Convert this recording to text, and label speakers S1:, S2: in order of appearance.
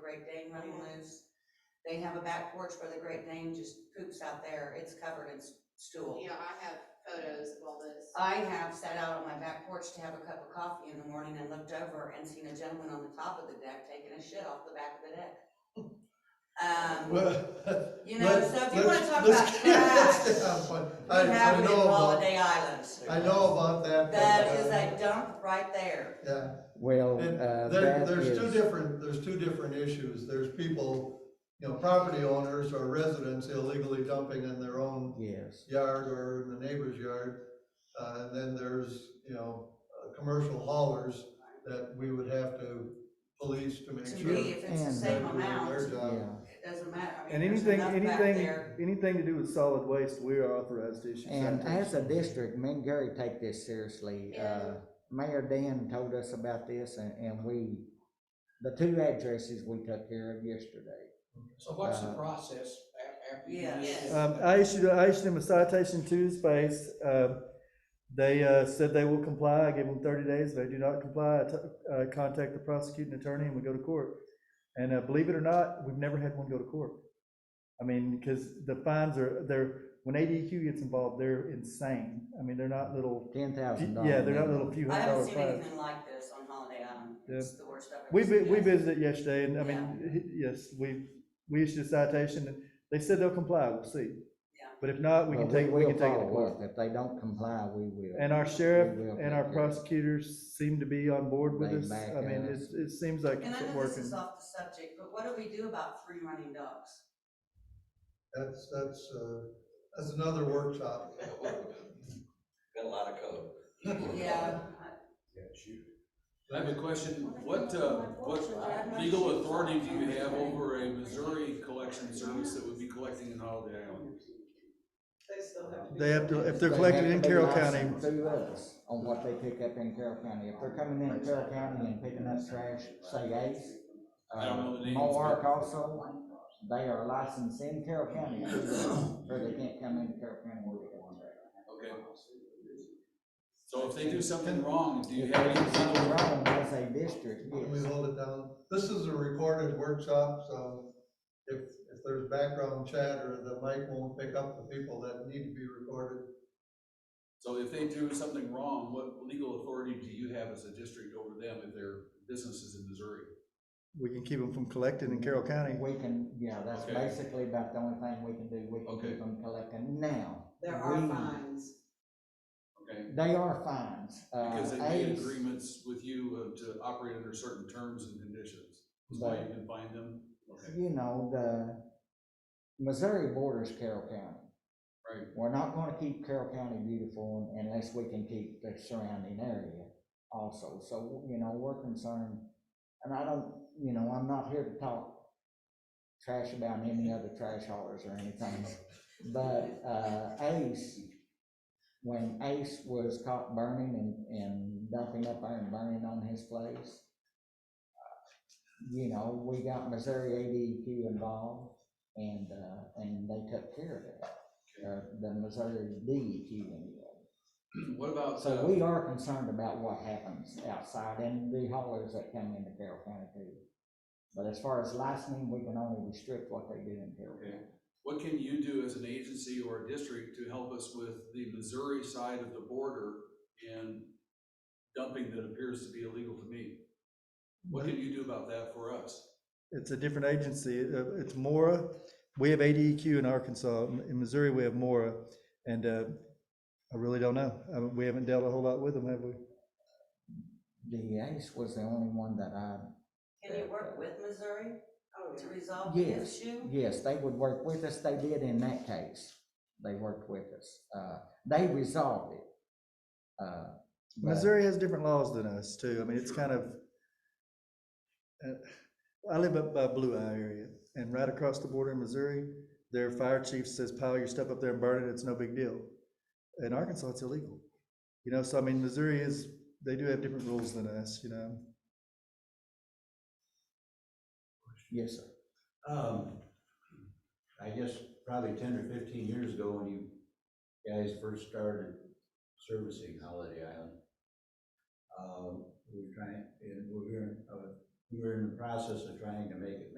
S1: Great Dane running loose. They have a back porch where the Great Dane just poops out there, it's covered in s- stool.
S2: Yeah, I have photos of all this.
S1: I have sat out on my back porch to have a cup of coffee in the morning and looked over and seen a gentleman on the top of the deck taking a shit off the back of the deck. Um,
S3: Well,
S1: you know,
S3: let's-
S1: so if you wanna
S3: let's-
S1: talk
S3: let's
S1: about
S3: get- let's get
S1: trash,
S3: that point.
S1: we
S3: I,
S1: have
S3: I
S1: it in
S3: know about,
S1: Holiday Islands.
S3: I know about that. but,
S1: That is
S3: uh,
S1: a dump right there.
S3: Yeah,
S4: Well,
S3: And
S4: uh,
S3: there,
S4: that
S3: there's two
S4: is,
S3: different, there's two different issues. There's people, you know, property owners or residents illegally dumping in their own
S4: yes,
S3: yard or in the neighbor's yard. Uh, and then there's, you know, uh, commercial haulers that we would have to police to make
S1: To
S3: sure.
S1: me, if it's the
S3: uh,
S4: And-
S3: they're
S1: same
S3: doing their
S1: amount,
S3: job.
S4: yeah.
S1: it doesn't matter. I mean,
S5: And
S1: there's
S5: anything,
S1: enough back
S5: anything,
S1: there.
S5: anything to do with solid waste, we are authorized to issue.
S4: And as
S5: citations.
S4: a district, me and Gary take this seriously. Uh,
S2: Yeah.
S4: Mayor Dan told us about this and, and we, the two addresses we took care of yesterday.
S6: So what's the
S4: Uh,
S6: process a- after? you
S1: Yeah.
S6: do
S2: Yes.
S6: this?
S5: Um, I issued, I issued them a citation to space. Uh, they, uh, said they will comply. I gave them thirty days. If they do not comply, I t- uh, contact the prosecuting attorney and we go to court. And, uh, believe it or not, we've never had one go to court. I mean, because the fines are, they're, when ADQ gets involved, they're insane. I mean, they're not little,
S4: Ten thousand dollars.
S5: yeah, they're not little few
S1: I
S5: hundred dollar
S1: haven't seen
S5: fines.
S1: anything like this on Holiday Island.
S5: Yeah.
S1: It's the worst I've
S5: We,
S1: ever
S5: vi-
S1: seen.
S5: we visited yesterday and, I mean, he- yes, we, we issued a citation and they said they'll comply. We'll see.
S1: Yeah.
S5: But if not,
S4: Uh,
S5: we can take, we can take it to
S4: follow
S5: court.
S4: up. If they don't comply, we will.
S5: And our sheriff
S4: We will
S5: and our
S4: take care of it.
S5: prosecutors seem to be on board with
S4: They
S5: us.
S4: back
S5: I mean,
S4: us.
S5: it, it seems like
S1: And I
S5: it's
S1: know this
S5: working.
S1: is off the subject, but what do we do about free running dogs?
S3: That's, that's, uh, that's another workshop.
S7: Got a lot of code.
S1: Yeah.
S6: I have a
S8: question, what, uh, what legal authority do you have over a Missouri collection service that would be collecting in Holiday Island?
S5: They have to, if they're
S4: They
S5: collected
S4: have
S5: in
S4: to be
S5: Carroll County,
S4: licensed Through us on what they pick up in Carroll County. If they're coming in Carroll County and picking up trash, say Ace. uh,
S8: I don't know the names, but-
S4: Mohawk also, they are licensed in Carroll County, or they can't come in Carroll County with it.
S8: Okay. So if they do something wrong, do you
S4: If
S8: have
S4: they do
S8: any,
S4: something wrong as a district,
S3: Can we
S4: yes.
S3: hold it down? This is a recorded workshop, so if, if there's background chatter, the mic won't pick up the people that need to be recorded.
S8: so if they do something wrong, what legal authority do you have as a district over them if their business is in Missouri?
S5: we can keep them from collecting in Carroll County.
S4: We can, yeah, that's
S8: Okay.
S4: basically about the only thing we can do. We can
S8: Okay.
S4: keep them collecting now.
S2: There are
S4: we-
S2: fines.
S8: Okay,
S4: They are fines. Uh,
S8: because they made
S4: Ace-
S8: agreements with you uh, to operate under certain terms and conditions, is why you can find them? Okay.
S4: you know, the Missouri borders Carroll County.
S8: Right.
S4: We're not gonna keep Carroll County beautiful unless we can keep the surrounding area also. So, you know, we're concerned, and I don't, you know, I'm not here to talk trash about any other trash haulers or anything. But, uh, Ace, when Ace was caught burning and, and dumping up there and burning on his place, you know, we got Missouri ADQ involved and, uh, and they took care of it. Or the Missouri DEQ anyway.
S8: What about,
S4: So
S8: uh,
S4: we are concerned about what happens outside and the haulers that come into Carroll County too. But as far as licensing, we can only restrict what they do in Carroll
S8: Okay.
S4: County.
S8: what can you do as an agency or a district to help us with the Missouri side of the border and dumping that appears to be illegal to me? What can you do about that for us?
S5: It's a different agency. Uh, It's Mora. We have ADEQ in Arkansas. In Missouri, we have Mora. And, uh, I really don't know. I mean, we haven't dealt a whole lot with them, have we?
S4: The Ace was the only one that I
S1: Can you work with Missouri to resolve the
S4: Yes,
S1: issue?
S4: yes, they would work with us, they did in that case, they worked with us, uh, they resolved it. Uh, but-
S5: Missouri has different laws than us too. I mean, it's kind of, uh, I live up by Blue Eye area and right across the border in Missouri, their fire chief says pile your stuff up there and burn it. It's no big deal. In Arkansas, it's illegal. You know, so I mean, Missouri is, they do have different rules than us, you know?
S4: Yes, sir.
S9: Um, I guess probably ten or fifteen years ago when you guys first started servicing Holiday Island. Um, Uh, we were trying, and we were, uh, we were in the process of trying to make it